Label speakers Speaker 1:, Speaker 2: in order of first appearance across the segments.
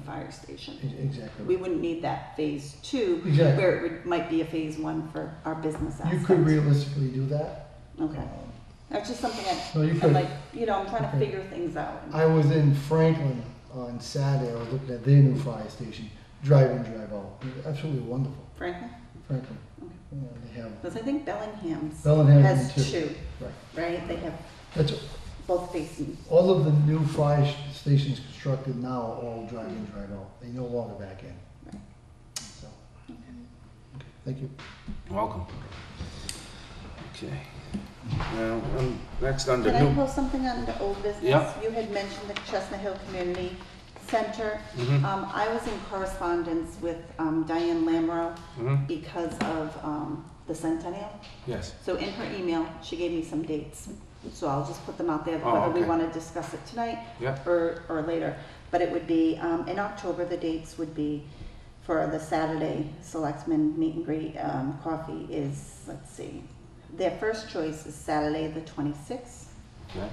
Speaker 1: fire station.
Speaker 2: Exactly.
Speaker 1: We wouldn't need that phase two,
Speaker 2: Exactly.
Speaker 1: where it would, might be a phase one for our business
Speaker 2: You
Speaker 1: aspect.
Speaker 2: could realistically do that.
Speaker 1: Okay, that's just something I,
Speaker 2: No, you
Speaker 1: I'm
Speaker 2: could.
Speaker 1: like, you know, I'm trying to
Speaker 2: Okay.
Speaker 1: figure things out.
Speaker 2: I was in Franklin on Saturday. I was looking at their new fire station, drive in, drive out. It was Absolutely wonderful,
Speaker 1: Franklin,
Speaker 2: Franklin.
Speaker 1: Okay.
Speaker 2: You know, they have
Speaker 1: because I think Bellingham's
Speaker 2: Bellingham
Speaker 1: has
Speaker 2: too.
Speaker 1: two,
Speaker 2: Right.
Speaker 1: right? They have
Speaker 2: That's
Speaker 1: both facing,
Speaker 2: all of the new fire sh- stations constructed now are all drive in, drive out. They no longer back in.
Speaker 1: Right.
Speaker 2: So, okay, thank you.
Speaker 3: Welcome. Okay. Now, um, next under
Speaker 1: Can I
Speaker 3: new.
Speaker 1: pull something on the old business?
Speaker 3: Yeah.
Speaker 1: You had mentioned the Chestnut Hill Community Center.
Speaker 3: Mhm,
Speaker 1: Um, I was in correspondence with um, Diane Lamro
Speaker 3: mhm,
Speaker 1: because of um, the centennial.
Speaker 3: Yes.
Speaker 1: So in her email, she gave me some dates. So I'll just put them out there,
Speaker 3: Oh,
Speaker 1: whether we
Speaker 3: okay.
Speaker 1: want to discuss it tonight
Speaker 3: Yeah.
Speaker 1: or, or later. But it would be, um, in October, the dates would be for the Saturday Selectmen Meet and Greet, um, coffee is, let's see. Their first choice is Saturday, the twenty-sixth.
Speaker 3: Okay.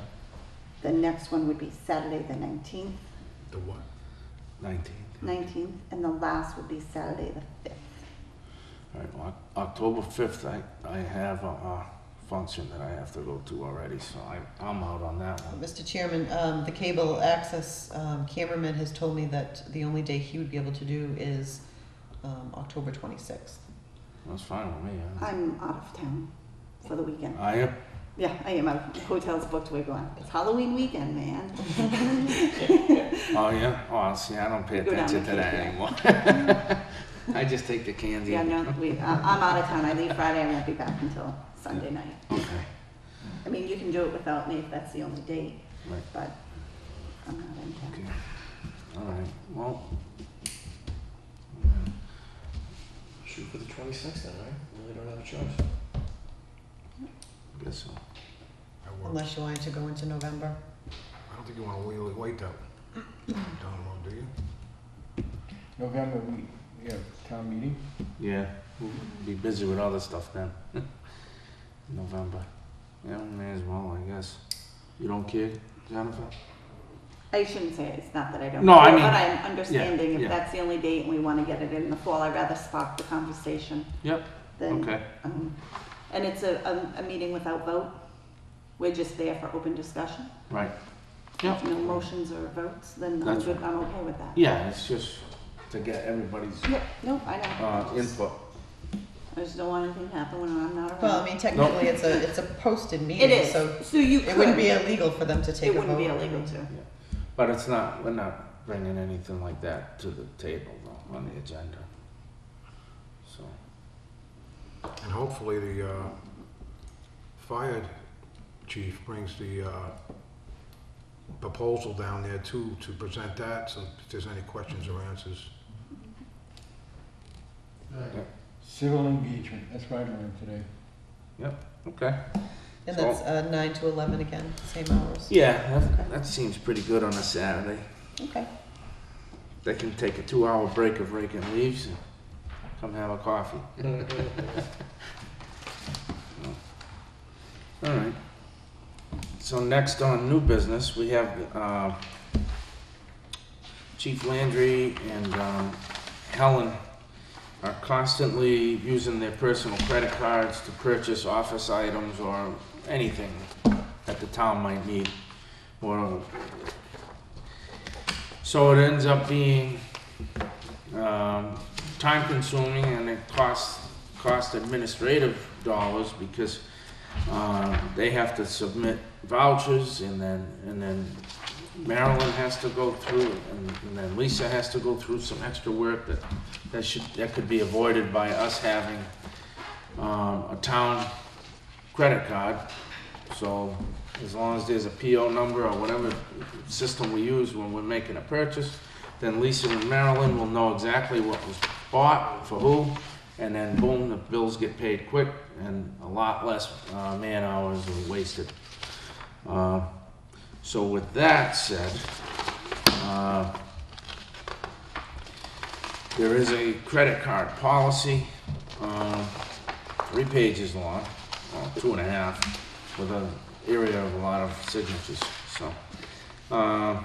Speaker 1: The next one would be Saturday, the nineteenth,
Speaker 4: The what?
Speaker 3: Nineteen.
Speaker 1: nineteenth, and the last would be Saturday, the fifth.
Speaker 3: All right. Well, Oc- October fifth. I I have a, a function that I have to go to already, so I I'm out on that one.
Speaker 5: Mr. Chairman, um, the cable access um, cameraman has told me that the only day he would be able to do is um, October 26th.
Speaker 3: That's fine with me. yeah.
Speaker 1: I'm out of town for the weekend.
Speaker 3: I am.
Speaker 1: Yeah, I am. My hotel's booked. We're going. It's Halloween weekend, man.
Speaker 3: Oh yeah. Oh, see, I don't pay
Speaker 1: Go down
Speaker 3: attention
Speaker 1: the
Speaker 3: to that
Speaker 1: cake, yeah.
Speaker 3: anymore. I just take the candy.
Speaker 1: yeah, no, we, I- I'm out of town. I leave Friday. I won't be back until Sunday night.
Speaker 3: Okay.
Speaker 1: I mean, you can do it without me if that's the only date,
Speaker 3: Right.
Speaker 1: but I'm not in town.
Speaker 3: Okay. All right. Well.
Speaker 4: Shoot for the 26th then, right? Really don't have a choice.
Speaker 3: I guess so.
Speaker 4: I work.
Speaker 5: Unless you wanted to go into November.
Speaker 4: I don't think you want to really wait that down road, do you?
Speaker 6: November, we, we have town meeting.
Speaker 3: Yeah, we'll be busy with other stuff then. November. Yeah, we may as well, I guess. You don't care, Jennifer?
Speaker 1: I shouldn't say it's not that I don't.
Speaker 3: No, I
Speaker 1: care,
Speaker 3: mean-
Speaker 1: But I'm understanding
Speaker 3: yeah.
Speaker 1: if that's the only date and we want to get it in the fall, I'd rather spark the conversation
Speaker 3: Yep.
Speaker 1: than.
Speaker 3: Okay.
Speaker 1: um, And it's a, a, a meeting without vote. We're just there for open discussion.
Speaker 3: Right.
Speaker 1: If
Speaker 3: Yep.
Speaker 1: No motions or votes, then I'm
Speaker 3: That's
Speaker 1: good. I'm okay with that.
Speaker 3: Yeah, it's just to get everybody's
Speaker 1: Yeah, no, I know.
Speaker 3: uh,
Speaker 1: I just-
Speaker 3: input.
Speaker 1: I just don't want anything to happen when I'm not around.
Speaker 5: Well, I mean, technically, it's a, it's a posted
Speaker 1: It
Speaker 5: meeting, so
Speaker 1: is, so you could.
Speaker 5: it wouldn't be illegal for them to take
Speaker 1: It
Speaker 5: a vote.
Speaker 1: wouldn't be illegal to.
Speaker 3: But it's not, we're not bringing anything like that to the table though, on the agenda. So,
Speaker 4: And hopefully the uh, fire chief brings the uh, proposal down there too, to present that, so if there's any questions or answers.
Speaker 6: Civil engagement, that's what I learned today.
Speaker 3: okay.
Speaker 5: And that's uh, 9 to 11 again, same hours.
Speaker 3: Yeah, that, that seems pretty good on a Saturday.
Speaker 5: Okay.
Speaker 3: They can take a two-hour break of raking leaves and come have a coffee. All right. So next on new business, we have uh, Chief Landry and um, Helen are constantly using their personal credit cards to purchase office items or anything that the town might need. Or so it ends up being um, time consuming and it costs cost administrative dollars because uh, they have to submit vouchers and then and then Marilyn has to go through and, and then Lisa has to go through some extra work that that should that could be avoided by us having um, a town credit card. So as long as there's a PO number or whatever system we use when we're making a purchase, then Lisa and Marilyn will know exactly what was bought for who, and then boom, the bills get paid quick and a lot less uh, man hours are wasted. Uh, so with that said, uh, there is a credit card policy, um, three pages long, well, two and a half, with an area of a lot of signatures. So, uh,